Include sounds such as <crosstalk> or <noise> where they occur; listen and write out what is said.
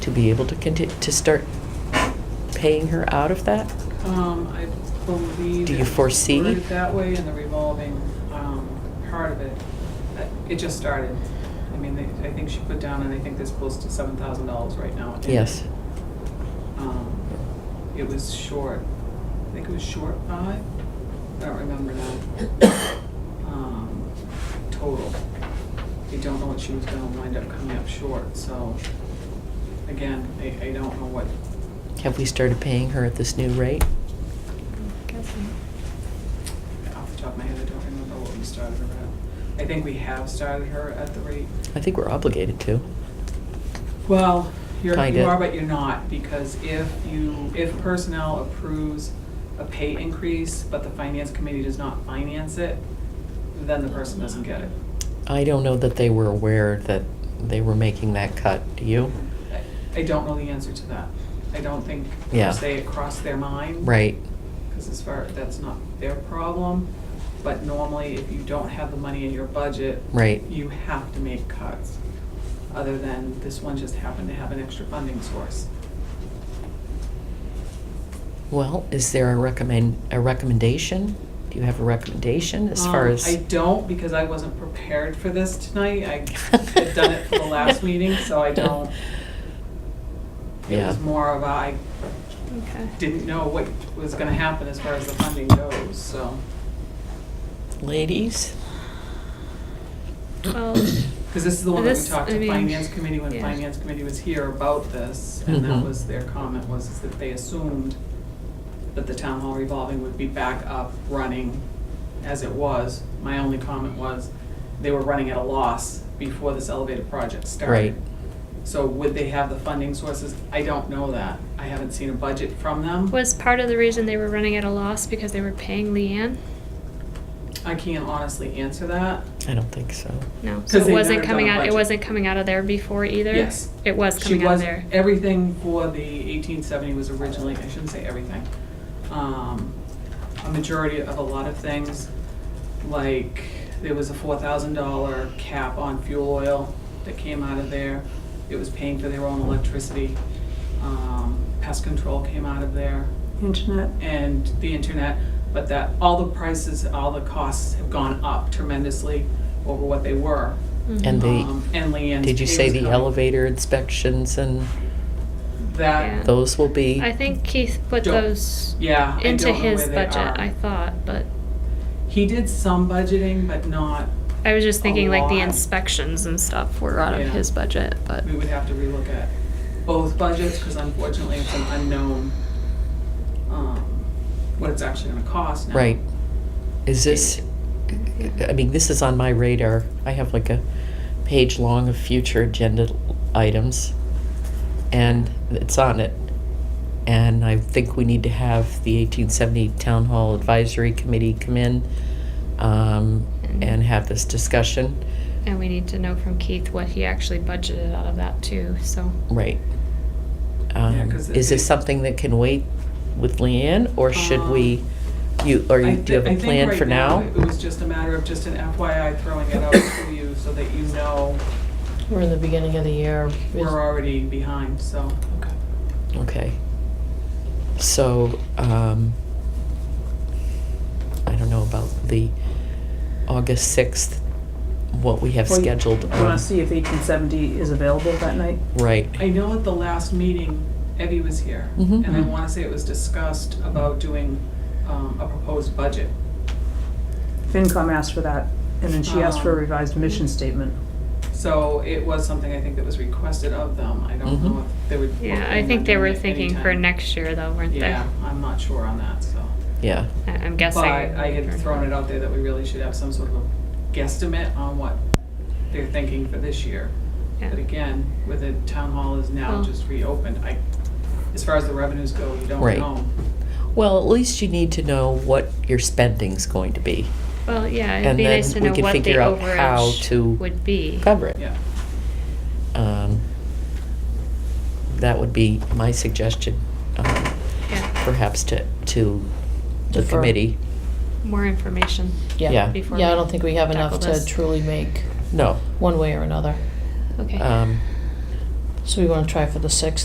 to be able to continue, to start paying her out of that? Um, I believe. Do you it was foresee? worded That way in the revolving, um, part of it, Uh, it just started. I mean, they- I think she put down, and I think there's close to seven thousand dollars right now. in it. Yes. Um, It was short, I think it was short five, I don't remember now. Um, Total. I don't know what she was gonna wind up coming up short, so, again, I, I don't know what, Have we started paying her at this new rate? off the top of my head, I don't remember what we started her at. I think we have started her at the rate. I think we're obligated to. Well, you're, you Kinda. are, but you're not, because if you, if personnel approves a pay increase, but the finance committee does not finance it, then the person doesn't get it. I don't know that they were aware that they were making that cut. Do you? I- I don't know the answer to that. I don't think, Yeah. per se, it crossed their mind. Right. Because as far, that's not their problem, but normally if you don't have the money in your budget, Right. you have to make cuts, other than this one just happened to have an extra funding source. Well, is there a recommend a recommendation? Do you have a recommendation as far Um, as? I don't, because I wasn't prepared for this tonight. I had done it <laughs> for the last meeting, so I don't. It Yeah. was more of a, I Okay. didn't know what was gonna happen as far as the funding goes, so. Ladies, Well, Because this is the one that we This- talked I to mean, Finance Committee, when yeah. Finance Committee was here about this, and that Mhm. was their comment, was is that they assumed that the town hall revolving would be back up, running as it was. My only comment was, they were running at a loss before this elevated project started. Right. So would they have the funding sources? I don't know that. I haven't seen a budget from them. was part of the reason they were running at a loss because they were paying Leanne? I can't honestly answer that. I don't think so. No, 'Cause so it they've wasn't never done coming a out, it budget. wasn't coming out of there before either? Yes. It was She coming out of was, there. everything for the eighteen seventy was originally, I shouldn't say everything. Um, a majority of a lot of things, like, there was a four thousand dollar cap on fuel oil that came out of there. It was paying for their own electricity. Um, pest control came out of there Internet. and the internet, but that all the prices, all the costs have gone up tremendously over what they were. Mm-hmm. And the Um, and Leanne's. did you say the elevator? elevator inspections and That, Yeah. those will be? I think Keith put Don't- those yeah, I into don't know his where they budget, I are. thought, but He did some budgeting, but not, I was just A thinking like the lot. inspections and stuff were out Yeah. of his budget, but. we would have to relook at both budgets, because unfortunately, it's an unknown, um, what it's actually gonna cost now. Right. Is this, Mm-hmm. I mean, this is on my radar. I have like a page long of future agenda items, and it's on it. And I think we need to have the 1870 Town Hall Advisory Committee come in um, Mm-hmm. and have this discussion. And we need to know from Keith what he actually budgeted out of that too, so. Right. Um, 'cause Is this it- something that can wait with Leanne, or should Um, we, you, or I you- do you thi- have I a think plan right for now? It was just a matter of just an FYI throwing <coughs> it out to you, so that you know We're in the beginning of the year. we're already behind, so. Okay. Okay. So, um, I don't know about the August sixth, what we have Well, you- scheduled. um, You on- wanna see if eighteen seventy is available that night? Right, I know at the last meeting, Evie was here, Mhm. and I wanna say it was discussed about doing, um, a proposed budget. FinCom asked for that, and then she asked for a Um, revised mission statement. So it was something I think that was requested of them. I don't know Mhm. if they would. Yeah, I think they were thinking for next year though, weren't they? Yeah, I'm not sure on that, so. yeah. I- I'm But guessing. I had thrown it out there that we really should have some sort of a guesstimate on what they're thinking for this year. Yeah. But again, with it, town hall is now Well- just reopened, I, as far as the revenues go, you don't Right. know. Well, at least you need to know what your spending's going to be. Well, yeah, And it'd be nice then to we know can what the figure out how to overage would be. Cover it. Yeah, Um, that would be my suggestion, um, Yeah, perhaps to, to the Defer. committee. more information. yeah. Yeah, Before yeah, I we don't think we have enough tackle to this. truly make No, one way or another. Okay. um, So we wanna try for the sixth.